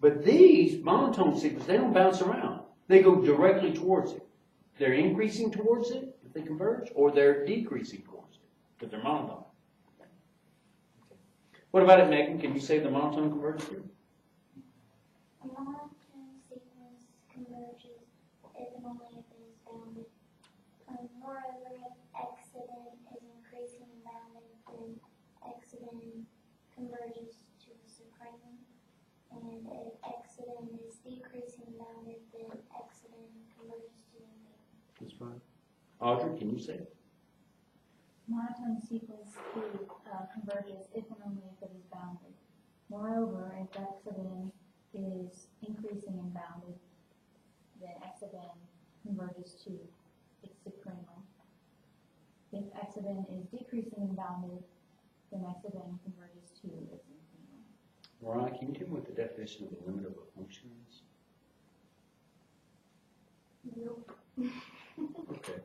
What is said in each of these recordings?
But these monotone sequences, they don't bounce around. They go directly towards it. They're increasing towards it if they converge, or they're decreasing towards it because they're monotone. What about it, Megan? Can you say the monotone converges here? monotone sequence converges if and only if it is bounded. Um, moreover, if exodent is increasing and bounded, then exodent converges to the supreme. And if exodent is decreasing and bounded, then exodent converges to the middle. That's fine. Audrey, can you say it? Monotone sequence C uh, converges if and only if it is bounded. Moreover, if x of n is increasing and bounded, then x of n converges to its suprema. If x of n is decreasing and bounded, then x of n converges to its infima. Mariah, can you tell me what the definition of the limit of a function is? Okay.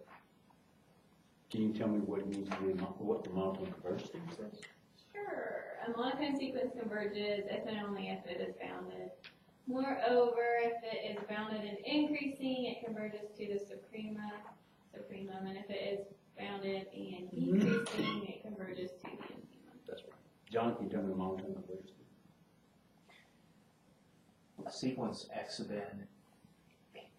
Can you tell me what it means to be, a mon- what the monotone converges to? Sure. A monotone sequence converges if and only if it is bounded. Moreover, if it is bounded and increasing, it converges to the suprema, supremum, and if it is bounded and decreasing, it converges to the infimum. That's right. John, can you tell me the monotone converges to? sequence x of n,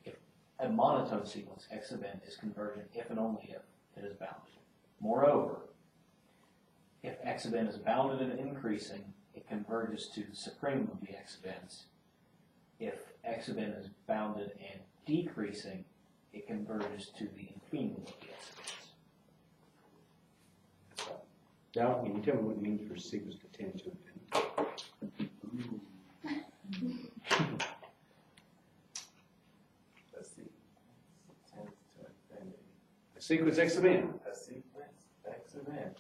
if a monotone sequence x of n is convergent if and only if it is bounded. Moreover, if x of n is bounded and increasing, it converges to the supremum of the x of n's. If x of n is bounded and decreasing, it converges to the infimum of the x of n's. Dow, can you tell me what it means for sequence to tend to infinity? A sequence tends to infinity. A sequence x of n A sequence x of n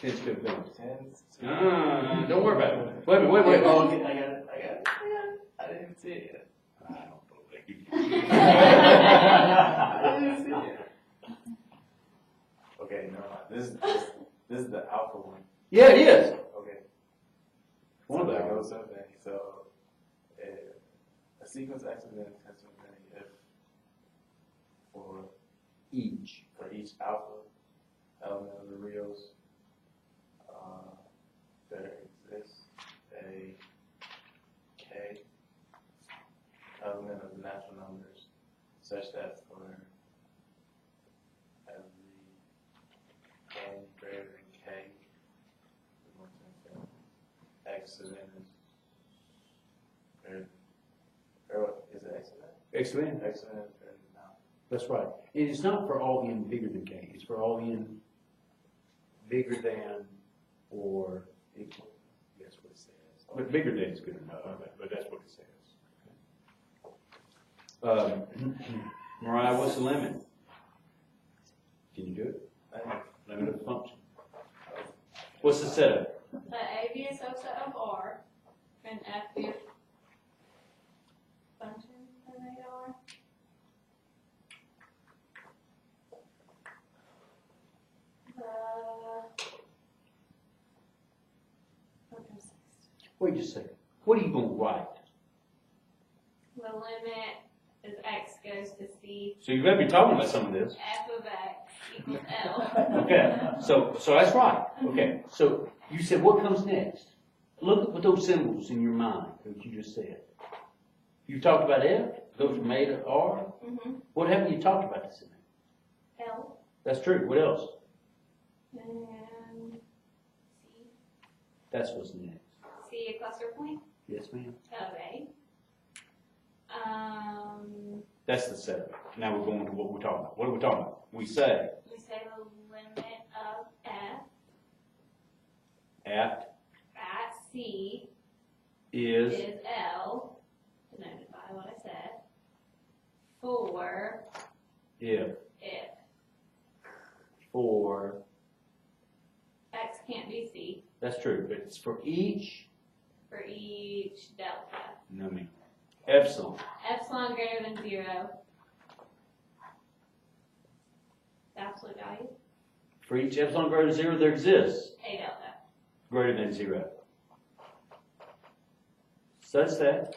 tends to infinity. tends to. Ah, don't worry about it. Wait a minute, wait, wait, Oh, oh. okay, I got it, I got it, I got it. I didn't see it. yet. I don't believe you. I didn't see it. Okay, never mind. This is, this, this is the alpha one. Yeah, it is. Okay. One of So that them. goes up and so uh, a sequence x of n tends to infinity if for Each. for each alpha element of the reals, uh, there exists a k element of the natural numbers such that for every n greater than k, we want to infinity, x of n is greater than, or what, is it x of X of n. n? X of n is greater than nine. That's right. And it's not for all n bigger than k. It's for all n bigger than or equal. That's what it says. But bigger than is good enough. But- But that's what it says. Um, Mariah, what's the limit? Can you do it? Nine. Limit of the function. What's the setup? Let A be a subset of R, and F be a function of AR. Uh, okay, six. Wait just a second. What are you gonna write? The limit is x goes to c, So you better be talking about some of this. f of x equals l. Okay, so, so that's right, okay, so you said what comes next? Look at what those symbols in your mind, that you just said. You talked about F, those were made of R, Mhm. what happened, you talked about this in there? L That's true, what else? and c, That's what's next. c a cluster point Yes, ma'am? of a. Um, That's the setup, now we're going to what we're talking about, what are we talking about? We say we say the limit of f at at c is, is l, denoted by what I said, for if, if for, x can't be c that's true, but it's for each, for each delta. no, ma'am, epsilon. Epsilon greater than zero. The absolute value, For each epsilon greater than zero, there exists a delta. greater than zero. Such that